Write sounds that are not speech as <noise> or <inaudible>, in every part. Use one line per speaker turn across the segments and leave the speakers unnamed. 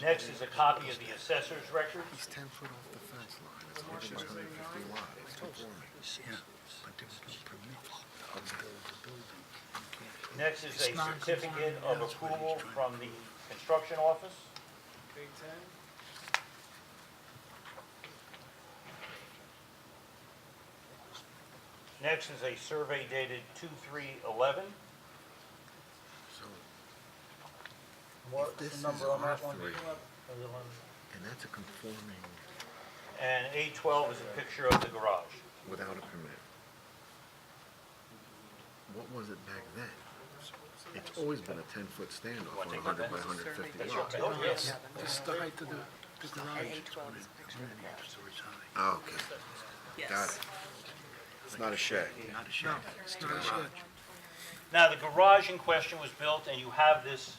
Next is a copy of the assessor's record.
He's ten foot off the fence line, it's within the hundred fifty lot, it's conforming. But there's no permit to build the building.
Next is a certificate of approval from the construction office. Next is a survey dated 2/3/11.
So,
What's
this
the
is
number on that one?
R3.
Other one?
and that's a conforming
And A12 is a picture of the garage.
without a permit. What was it back then? It's always been a ten foot standoff on a hundred by hundred fifty lot.
Oh, yes.
Just the height of the, the garage.
A12 is a picture of that.
Ah, Okay, got
Yes.
it. It's not a shed.
No, it's not a shed.
Now, the garage in question was built, and you have this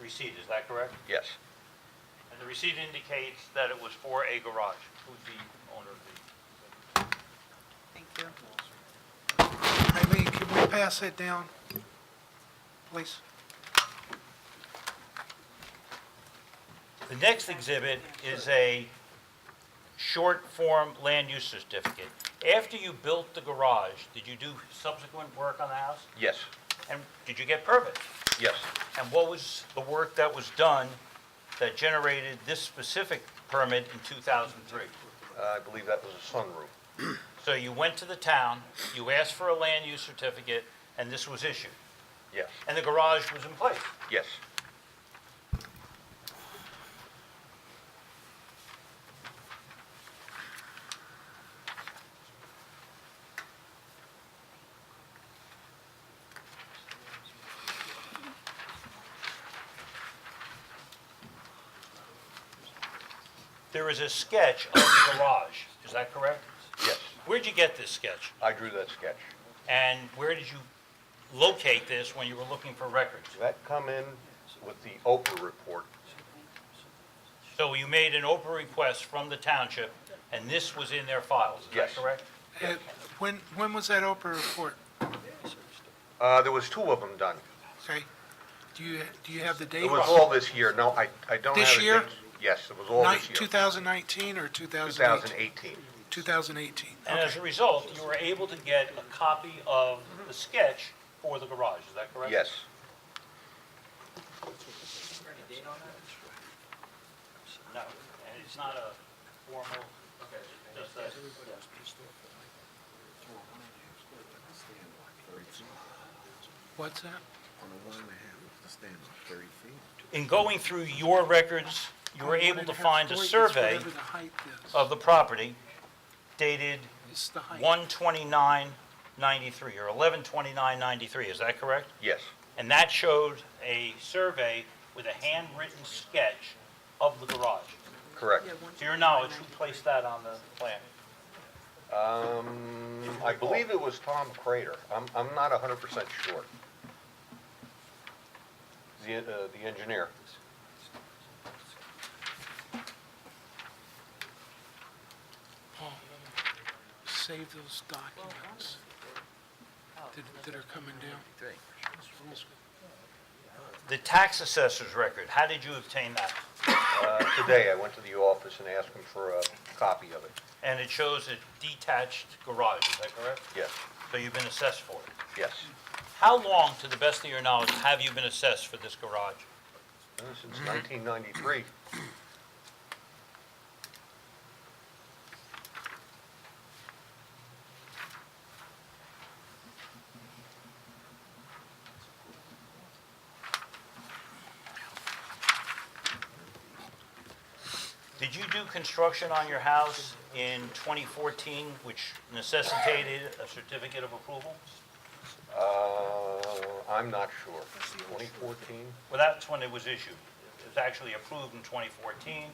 receipt, is that correct?
Yes.
And the receipt indicates that it was for a garage. Who's the owner of the?
Thank you.
Eileen, can we pass that down, please?
The next exhibit is a short-form land use certificate. After you built the garage, did you do subsequent work on the house?
Yes.
And did you get permits?
Yes.
And what was the work that was done that generated this specific permit in 2003?
I believe that was a sunroom.
So you went to the town, you asked for a land use certificate, and this was issued.
Yes.
And the garage was in place.
Yes.
There is a sketch of the <coughs> garage, is that correct?
Yes.
Where'd you get this sketch?
I drew that sketch.
And where did you locate this when you were looking for records?
That come in with the Oprah report.
So you made an open request from the township, and this was in their files, is that
Yes.
correct?
Uh, When, when was that Oprah report,
Uh, there was two of them done.
okay? Do you, do you have the date?
It was all this year. No, I, I don't have
This
it.
year?
Yes, it was all
Nine-
this year.
2019 or 2018?
2018.
2018,
And as a result, you were able to get a copy of the sketch for the garage, is that correct?
Yes.
No, and it's not a formal, just a-
what's that?
On the one and a half, it's the standoff, thirty feet.
In going through your records, you were
One
able
and
to
half
find a
story is
survey
Whatever the height is.
of the property dated
It's the height.
12993 or 112993, is that correct?
Yes.
And that showed a survey with a handwritten sketch of the garage.
Correct.
To your knowledge, who placed that on the plan?
Um, I believe it was Tom Crater. I'm, I'm not 100% sure. The, uh, the engineer.
Paul, Save those documents that- that are coming down.
The tax assessor's record, how did you obtain that?
Uh, today, I went to the office and asked him for a copy of it.
And it shows a detached garage, is that correct?
Yes,
So you've been assessed for it.
yes.
How long, to the best of your knowledge, have you been assessed for this garage?
Uh, Since 1993.
Did you do construction on your house in 2014, which necessitated a certificate of approval?
Uh, I'm not sure. 2014?
Well, that's when it was issued. It was actually approved in 2014.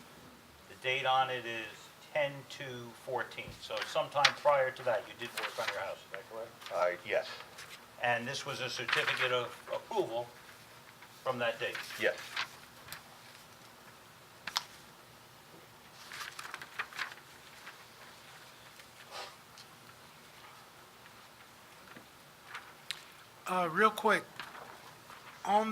The date on it is 10/2/14, so sometime prior to that, you did work on your house, is that correct?
I, Uh, yes,
And this was a certificate of approval from that date.
yes.
Uh, Real quick,